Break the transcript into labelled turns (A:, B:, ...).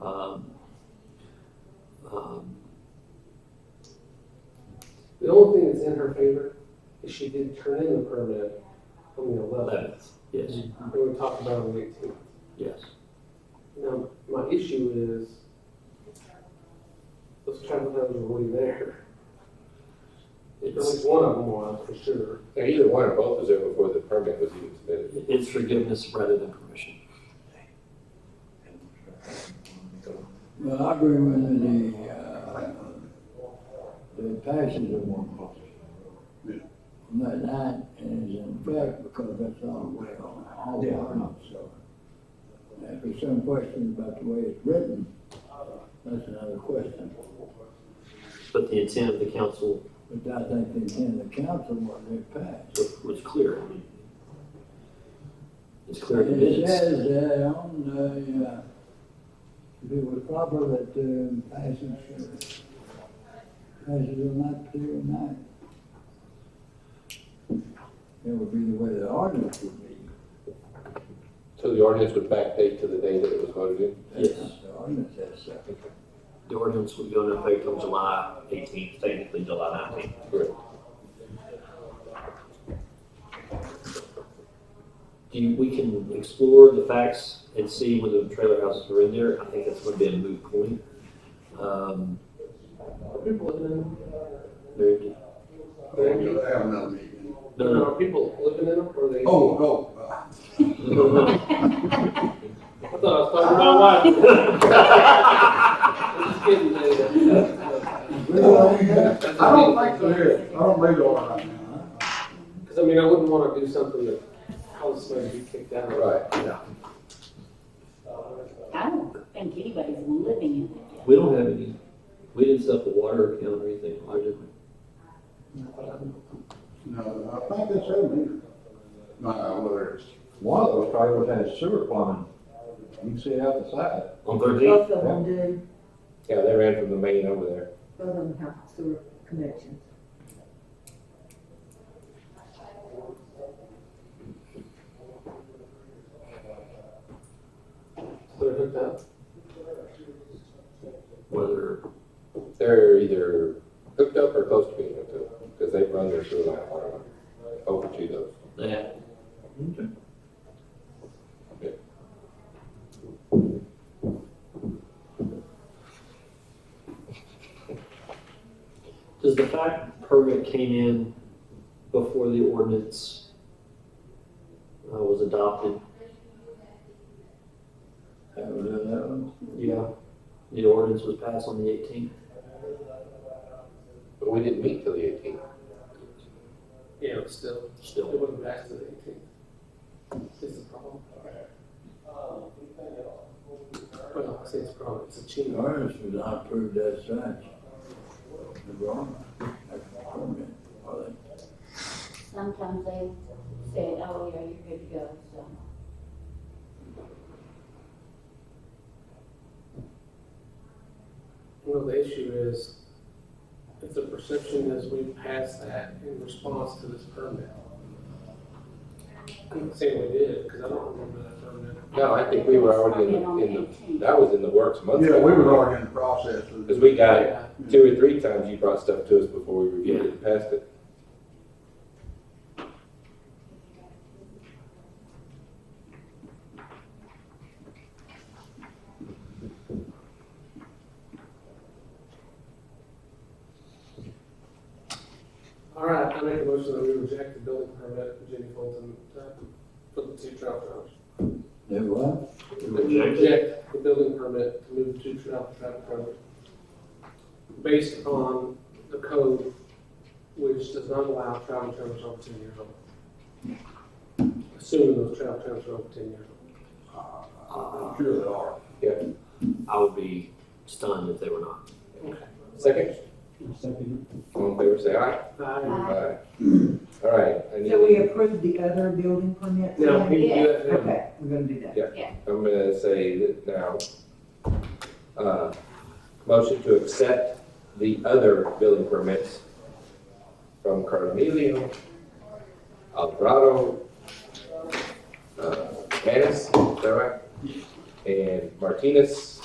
A: Um, um,
B: The only thing that's in her favor is she did turn in the permit on the eleventh,
A: Eleventh, yes,
B: and we talked about it on the eighteenth.
A: yes.
B: Now, my issue is, those travel times were already there. At
A: It's,
B: least one of them was, for sure.
C: Now, Either one or both was there before the permit was even submitted.
A: it's forgiveness rather than permission.
D: Well, I agree with the, uh, the passage of one policy. And that that is in fact because that's all the way on, all the way so. If there's some question about the way it's written, that's another question.
A: But the intent of the council
D: But I think the intent of the council was it passed.
A: was- was clear. It's clear in the
D: It
A: minutes.
D: says, uh, on, the, uh, if it was proper that, uh, passage, uh, passage on that particular night. That would be the way the ordinance would be.
C: So the ordinance would backdate to the day that it was voted in?
D: That's
A: Yes.
D: not The ordinance says so.
A: The ordinance would go into effect on July eighteenth, technically July nineteenth.
C: Correct.
A: Do you, we can explore the facts and see whether the trailer houses are in there. I think that's gonna be a moot point. Um,
B: Are people living in them?
A: there,
E: They do have another meeting.
A: no, no,
B: Are people living in them, or are they?
E: Oh, oh, uh,
B: I thought I was talking about my wife. I'm just kidding,
E: I don't think there is, I don't believe there are right now.
B: Because I mean, I wouldn't want to do something that causes somebody to be kicked out.
C: Right.
F: I don't think anybody's living in it yet.
A: we don't have any, we didn't set up a water account or anything, or did we?
E: No, I think that's every meeting. No, whether it's,
G: One of those trailers has sewer plumbing. You can see it out the side.
A: On thirteenth?
H: Both of them do,
C: Yeah, they ran from the main over there.
H: both of them have sewer connections.
B: They're hooked up.
A: Whether,
C: They're either hooked up or close to being hooked up, because they run their sewer line water line over to those.
A: that, does the fact permit came in before the ordinance uh, was adopted?
D: That was eleven.
A: Yeah. The ordinance was passed on the eighteenth?
C: But we didn't meet till the eighteenth.
B: Yeah, but still, it
A: Still,
B: wouldn't pass to the eighteenth. It's a problem. Well, I say it's a problem, it's a cheat.
D: The ordinance was not approved as such. The wrong, that's the permit. Well, they
F: Sometimes they say, oh, yeah, you're good to go, so.
B: Well, the issue is, if the perception is we passed that in response to this permit. I'm not saying we did, because I don't remember that permit.
C: No, I think we were already in, the- in the, that was in the works months
E: yeah,
C: ago.
E: we were already in the process. of-
C: Because we got it
B: Yeah,
C: two or three times, you brought stuff to us before we reviewed it and passed it.
B: all right, I make a motion that we reject the building permit for Jenny Fulton, uh, for the two trout trailers.
D: They what?
A: Reject it.
B: Reject the building permit to move the two trout trout trailers. Based on the code, which does not allow trout trailers over ten years old. Assuming those trout trailers are over ten years old.
E: Uh, I'm sure there are.
A: I would be stunned if they were not.
C: Second? All in favor, say aye.
B: No,
C: Aye. All right, I need,
H: So we approved the other building permit?
B: we
H: tonight?
B: can do that now.
H: Okay, we're gonna do that.
C: I'm gonna say that now, uh, motion to accept the other building permits from Carmelio, Alvarado, uh, Manis, is that right? And Martinez.